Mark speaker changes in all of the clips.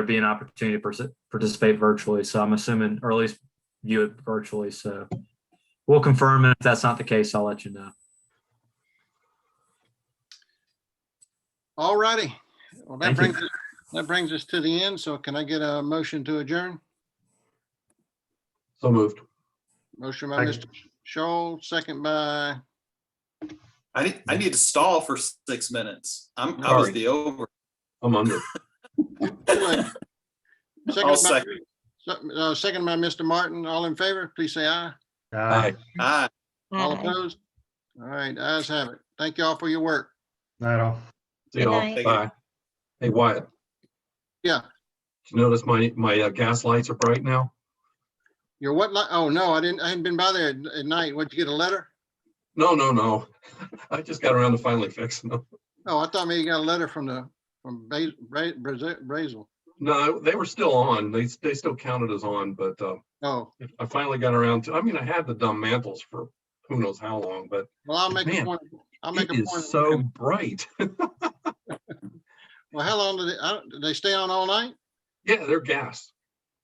Speaker 1: there'd be an opportunity to partic- participate virtually. So I'm assuming, or at least view it virtually. So we'll confirm. And if that's not the case, I'll let you know.
Speaker 2: All righty. Well, that
Speaker 1: Thank you.
Speaker 2: brings, us- that brings us to the end. So can I get a motion to adjourn?
Speaker 3: So moved.
Speaker 2: Motion by Mr. Shoal, second by,
Speaker 4: I need, I need to stall for six minutes. I'm, I was the over.
Speaker 3: I'm under.
Speaker 2: second
Speaker 4: I'll
Speaker 2: by,
Speaker 4: second.
Speaker 2: uh, second by Mr. Martin. All in favor, please say aye.
Speaker 3: Aye.
Speaker 4: Aye.
Speaker 2: All
Speaker 5: Aye.
Speaker 2: opposed? All right, ayes have it. Thank you all for your work.
Speaker 6: Not all.
Speaker 3: See
Speaker 5: Good
Speaker 3: y'all.
Speaker 5: night.
Speaker 3: Bye. Hey Wyatt.
Speaker 2: Yeah.
Speaker 3: Did you notice my, my uh, gas lights are bright now?
Speaker 2: Your what, li- oh, no, I didn't, I hadn't been by there at- at night. What'd you get a letter?
Speaker 3: No, no, no. I just got around to finally fixing them.
Speaker 2: Oh, I thought maybe you got a letter from the, from Bas- Bra- Brazi- Brazel.
Speaker 3: No, they were still on. They, they still counted as on, but uh,
Speaker 2: Oh,
Speaker 3: I finally got around to, I mean, I had the dumb mantles for who knows how long, but
Speaker 2: well, I'll make a
Speaker 3: Man,
Speaker 2: point. I'll make
Speaker 3: it
Speaker 2: a
Speaker 3: is
Speaker 2: point.
Speaker 3: so bright.
Speaker 2: Well, how long did they, I don't- did they stay on all night?
Speaker 3: Yeah, they're gas.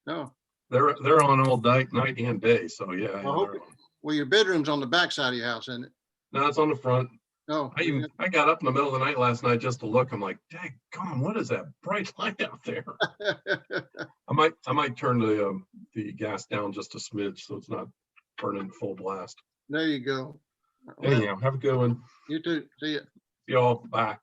Speaker 2: No.
Speaker 3: They're, they're on all night, night and day. So yeah. yeah,
Speaker 2: hope
Speaker 3: they're
Speaker 2: it-
Speaker 3: on.
Speaker 2: Well, your bedroom's on the back side of your house, isn't it?
Speaker 3: No, it's on the front.
Speaker 2: No.
Speaker 3: I even, I got up in the middle of the night last night just to look. I'm like, dang, on, what is that bright light out there? I might, I might turn the, um, the gas down just a smidge so it's not burning full blast.
Speaker 2: There you go. Well,
Speaker 3: Anyhow, have a good one.
Speaker 2: You too. See ya.
Speaker 3: Y'all, bye.